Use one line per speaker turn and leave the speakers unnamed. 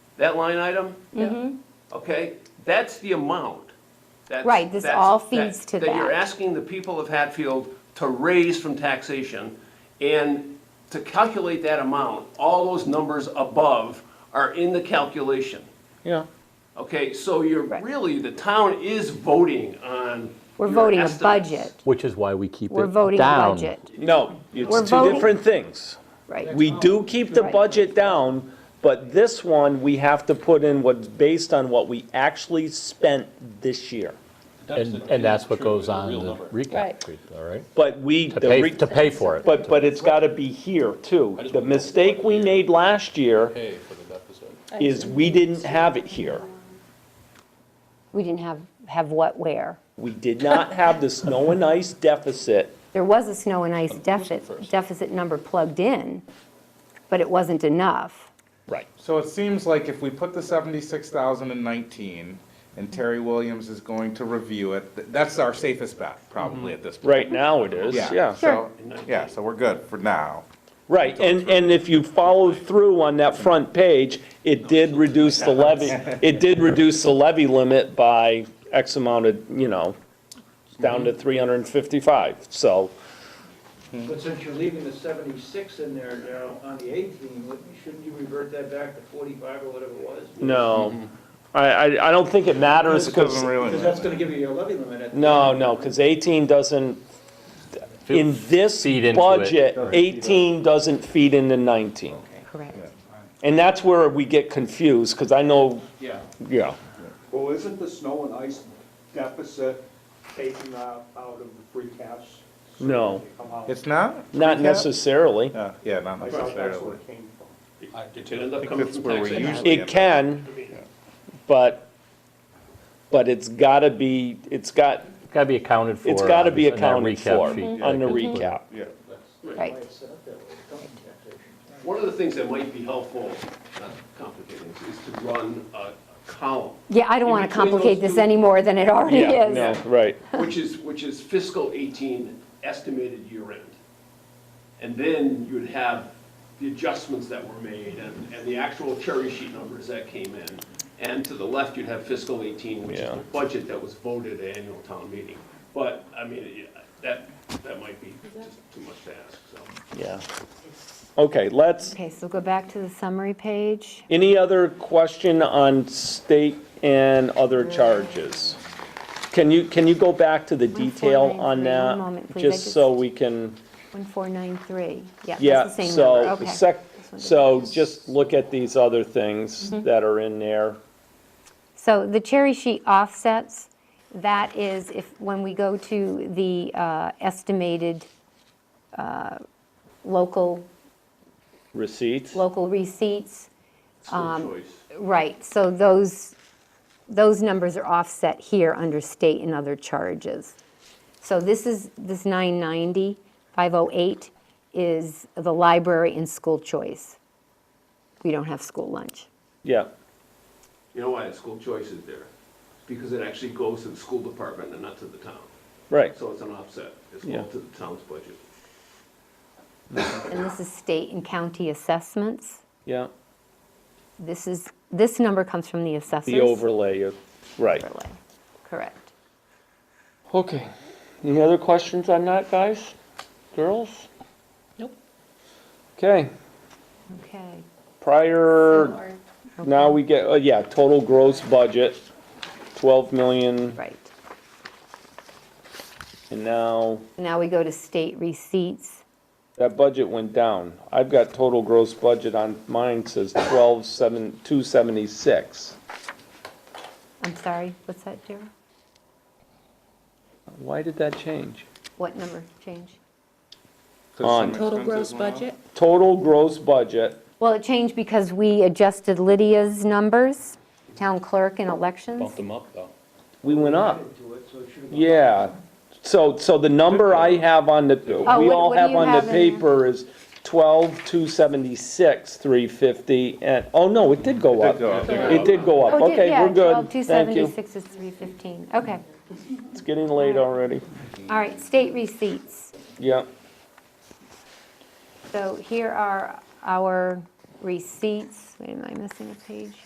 that line item,
Mhm.
okay, that's the amount. that-
Right, this
that's-
all feeds to
That you're
that.
asking the people of Hatfield to raise from taxation, and to calculate that amount, all those numbers above are in the calculation.
Yeah.
Okay, so you're
Right.
really, the town is voting on.
We're
your
voting a
estimates.
budget.
Which is why we keep it down.
We're voting a budget,
No,
We're
it's two
voting-
different things.
right?
We do keep the
Right.
budget down, but this one, we have to put in what's based on what we actually spent this year.
And, and that's what goes on the
Right.
recap, sheet, all right?
But we.
To
the
pay,
re-
to pay for it.
But, but it's gotta be here too. The mistake we made last year
pay for the deficit.
is we didn't have it here.
We didn't have, have what where.
We did not have the snow and ice deficit.
There was a snow and ice deficit, deficit number plugged in, but it wasn't enough.
Right.
So it seems like if we put the seventy-six thousand in nineteen, and Terry Williams is going to review it, th- that's our safest bet, probably at this point.
Right now it is, yeah.
So, yeah, so we're good for now.
Right, and, and if you follow through on that front page, it did reduce the levy, it did reduce the levy limit by X amount of, you know, down
Mm-hmm.
to three hundred and fifty-five, so,
But since you're leaving the 76 in there now on the 18, wouldn't- shouldn't you revert that back to 45 or whatever it was?
Mm-hmm.
no. I, I, I don't think it matters,
This doesn't
because,
really.
Because that's going to give you your levy limit at
no, no, because eighteen doesn't, in this
Feed into it.
budget, eighteen doesn't feed into nineteen.
Correct.
And that's where we get confused, because I know,
Yeah.
yeah,
Well, isn't the snow and ice deficit taken out out of the free cash? so
No.
they come out?
It's not?
not
Yeah.
necessarily.
Yeah, yeah, not
I thought that's where
necessarily.
it came from.
It could end up
think
coming
that's
from
where we
taxation.
usually-
It can, but, but it's gotta be, it's got,
Gotta be accounted for.
it's gotta be
on that
accounted
recap
for
sheet.
on the recap.
Yeah.
Right.
It's set up that way. It's coming back to-
One of the things that might be helpful, not complicating, is to run a a column,
Yeah, I don't
In
want to
between those
complicate this
two-
any more than it already
Yeah,
is.
no, right.
which is, which is fiscal 18 estimated year end. And then you would have the adjustments that were made and, and the actual cherry sheet numbers that came in. And to the left, you'd have fiscal 18, which is
Yeah.
the budget that was voted at annual town meeting. But, I mean, yeah, that, that might be just too much to ask, so.
Yeah. Okay, let's,
Okay, so go back to the summary page.
any other question on state and other charges? Can you, can you go back to the detail on
1493,
that?
one moment, please, I
Just so
just-
we can,
1493, yeah,
yeah,
that's the same number,
so,
okay.
the sec,
This one Mm-hmm. did.
so just look at these other things that are in there.
So the cherry sheet offsets, that is if, when we go to the uh, estimated uh, local,
Receipts?
local receipts,
School choice.
right, so those, those numbers are offset here under state and other charges. So this is, this 990, 508 is the library and school choice. We don't have school lunch.
Yeah,
You know why the school choice is there? Because it actually goes to the school department and not to the town.
right.
So it's an offset, it's
Yeah.
going to the town's budget.
And this is state and county assessments.
Yeah,
This is, this number comes from the assessors.
the overlay, uh, right.
Overlay, correct.
Okay. Any other questions on that, guys? Girls? Nope. Okay,
Okay,
prior, now we get, oh, yeah, total gross budget, 12 million,
right.
and now
Now we go to state receipts.
that budget went down. I've got total gross budget on mine says 12, 7, 276.
I'm sorry, what's that, Jerry?
Why did that change?
What number change?
On.
Total gross budget?
Total gross budget,
Well, it changed because we adjusted Lydia's numbers, town clerk and elections.
Bumped them up, though.
we went up.
added to it, so it should have.
Yeah, so, so the number I have on the, we
Oh, what-
all
what do
have
you
on
have
the
in there?
paper is twelve, two seventy-six, three fifty, and, oh, no, it did go
It
up.
did go up.
It did go up,
Oh, did-
okay,
yeah,
we're
12,
good, thank you.
276 is 315, okay.
It's getting late already,
All right, state receipts.
yeah,
So here are our receipts. Wait, am I missing a page?